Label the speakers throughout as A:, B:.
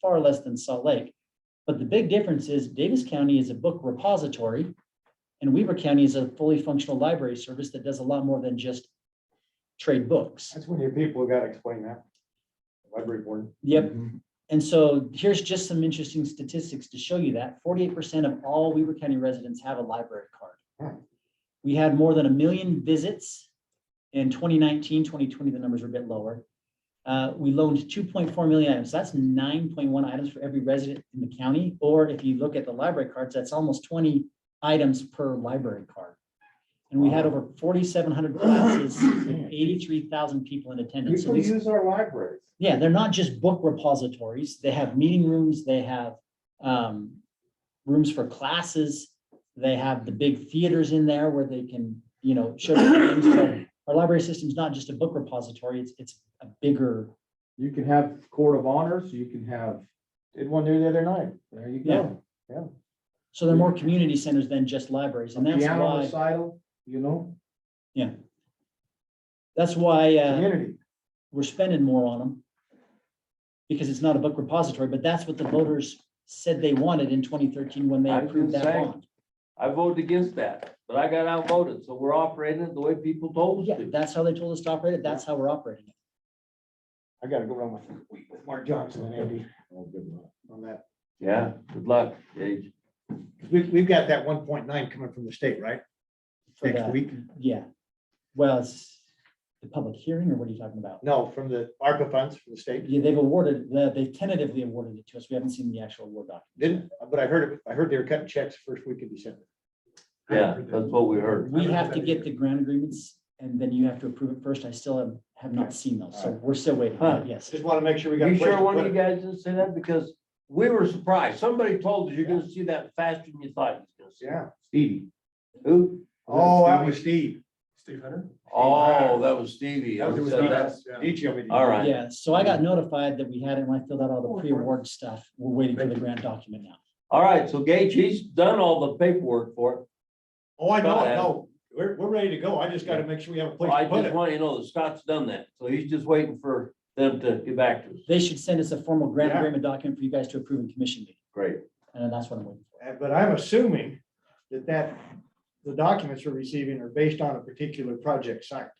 A: far less than Salt Lake. But the big difference is Davis County is a book repository and Weaver County is a fully functional library service that does a lot more than just trade books.
B: That's when your people gotta explain that. Library board.
A: Yep.
C: Mm-hmm.
A: And so here's just some interesting statistics to show you that forty-eight percent of all Weaver County residents have a library card.
B: Hmm.
A: We had more than a million visits in 2019, 2020. the numbers were a bit lower. Uh, we loaned two point four million items. That's nine point one items for every resident in the county. Or if you look at the library cards, that's almost twenty items per library card. And we had over forty-seven hundred classes, eighty-three thousand people in attendance. So
B: People
A: these-
B: use our libraries.
A: yeah, they're not just book repositories. They have meeting rooms, they have um, rooms for classes. They have the big theaters in there where they can, you know, show their games. So Our library system is not just a book repository, it's, it's a bigger,
C: You can have court of honors, you can have,
B: Did one there the other night.
C: there you
A: Yeah.
C: go.
A: so they're more community centers than just libraries. And that's
C: Piano
A: why,
C: recital, you know,
A: that's why uh,
C: community.
A: we're spending more on them. Because it's not a book repository, but that's what the voters said they wanted in twenty thirteen when they
D: I was
A: approved
D: gonna
A: that
D: say.
A: bond.
D: I voted against that, but I got outvoted, so we're operating it the way people told
A: Yeah,
D: us to.
A: that's how they told us to operate it. That's how we're operating it.
B: I gotta go around with, with Mark Johnson and Andy
C: Oh, good luck.
B: on that.
D: Yeah, good luck, Gage.
B: We, we've got that one point nine coming from the state, right?
A: for
B: Next
A: that.
B: week?
A: Yeah. Well, it's the public hearing or what are you talking about?
B: No, from the ARPA funds from the state.
A: Yeah, they've awarded, they- they've tentatively awarded it to us. We haven't seen the actual award document.
B: Didn't, but I heard, it- I heard they were cutting checks first week of December.
D: Yeah, that's what we heard.
A: We have to get the grant agreements and then you have to approve it first. I still have- have not seen those, so we're still waiting.
D: Huh.
A: Yes.
B: Just wanna make sure we got. a
D: You
B: place
D: sure
B: to
D: one
B: put
D: of you
B: it.
D: guys didn't say that? Because we were surprised. Somebody told us you're gonna see that faster than you thought you was gonna
B: Yeah.
C: Stevie.
D: see. Who?
B: Oh, that was Steve.
E: Steve Hunter?
D: Oh, that was Stevie.
B: That
D: Who
B: was
D: said that?
B: Steve. He told me to-
D: All right.
A: Yeah, so I got notified that we had it when I filled out all the pre-award stuff. We're waiting for the grant document now.
D: All right, so Gage, he's done all the paperwork for it.
B: Oh, I know,
D: Go
B: I
D: ahead.
B: know. We're, we're ready to go. I just gotta make sure we have a place
D: Well, I
B: to put
D: just
B: it.
D: want you to know that Scott's done that, so he's just waiting for them to get back to us.
A: They should send us a formal grant
B: Yeah.
A: agreement document for you guys to approve in commission meeting.
D: Great.
A: And that's what I'm waiting for.
B: Uh, But I'm assuming that that, the documents we're receiving are based on a particular project site.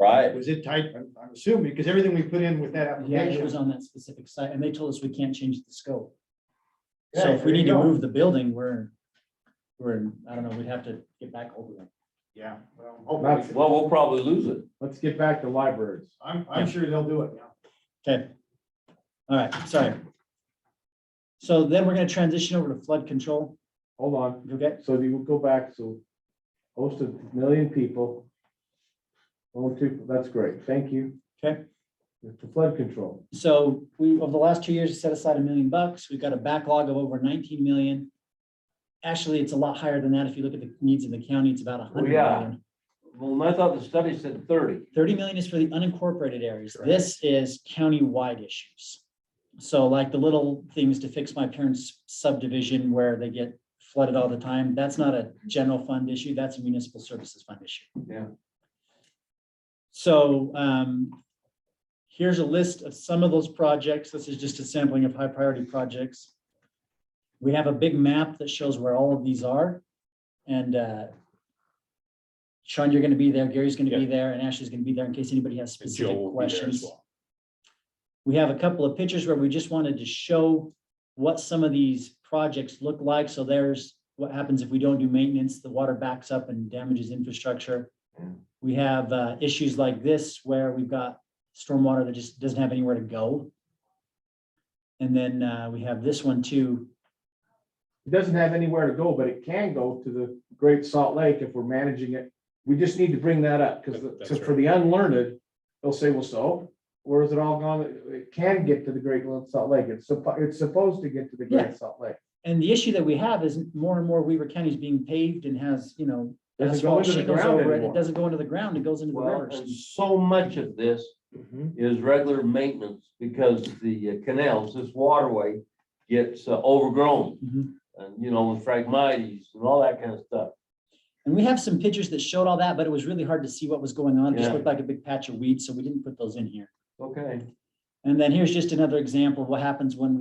D: Right.
B: Was it tight? I'm, I'm assuming, because everything we put in with that
A: Yeah, it was
B: application.
A: on that specific site and they told us we can't change the scope. So
B: Yeah,
A: if we
B: there you
A: need to
B: go.
A: move the building, we're, we're, in- I don't know, we'd have to get back over them.
B: Yeah. well,
C: That's-
B: hopefully.
D: Well, we'll probably lose it.
C: Let's get back to libraries.
B: I'm, I'm
A: Yeah.
B: sure they'll do it now.
A: Okay. All right, sorry. So then we're gonna transition over to flood control.
C: Hold on.
A: Okay,
C: So if you go back, so host a million people. Oh, two, that's great. Thank you.
A: Okay.
C: With the flood control.
A: so we, over the last two years, set aside a million bucks. We've got a backlog of over nineteen million. Actually, it's a lot higher than that. If you look at the needs in the county, it's about a
B: Oh,
A: hundred
D: yeah.
A: million.
D: Well, I thought the study said thirty.
A: 30 million is for the unincorporated areas.
D: Correct.
A: This is county-wide issues. So like the little things to fix my parents subdivision where they get flooded all the time, that's not a general fund issue, that's a municipal services fund issue.
D: Yeah.
A: So um, here's a list of some of those projects. This is just a sampling of high priority projects. We have a big map that shows where all of these are. And uh, Sean, you're gonna be there, Gary's gonna be there, and Ashley's gonna be there in case anybody has
E: And Joe
A: specific
E: will be there as
A: questions.
E: well.
A: We have a couple of pictures where we just wanted to show what some of these projects look like. So there's what happens if we don't do maintenance, the water backs up and damages infrastructure.
E: Mm.
D: Yeah.
A: We have uh, issues like this where we've got stormwater that just doesn't have anywhere to go. And then uh, we have this one too.
C: It doesn't have anywhere to go, but it can go to the Great Salt Lake if we're managing it. We just need to bring that up because
E: That- that's
C: for the unlearned, they'll say, well, so where is it all gone? It can get to the Great Salt Lake. It's supposed, it's supposed to get to the
A: Yeah.
C: Great Salt Lake.
A: And the issue that we have is more and more Weaver County is being paved and has, you know,
C: Doesn't
A: asphalt
C: go into the
A: shingles
C: ground
A: over it. It
C: anymore.
A: doesn't go into the ground, it goes into the
D: Well,
A: rivers.
D: and so much of this
C: Mm-hmm.
D: is regular maintenance because the uh, canals, this waterway gets uh, overgrown.
A: Mhm.
D: And, you know, with phragmites and all that kind of stuff.
A: And we have some pictures that showed all that, but it was really hard to see what was going on. It just
D: Yeah.
A: looked like a big patch of weeds, so we didn't put those in here.
D: Okay.
A: Uh, And then here's just another example of what happens when we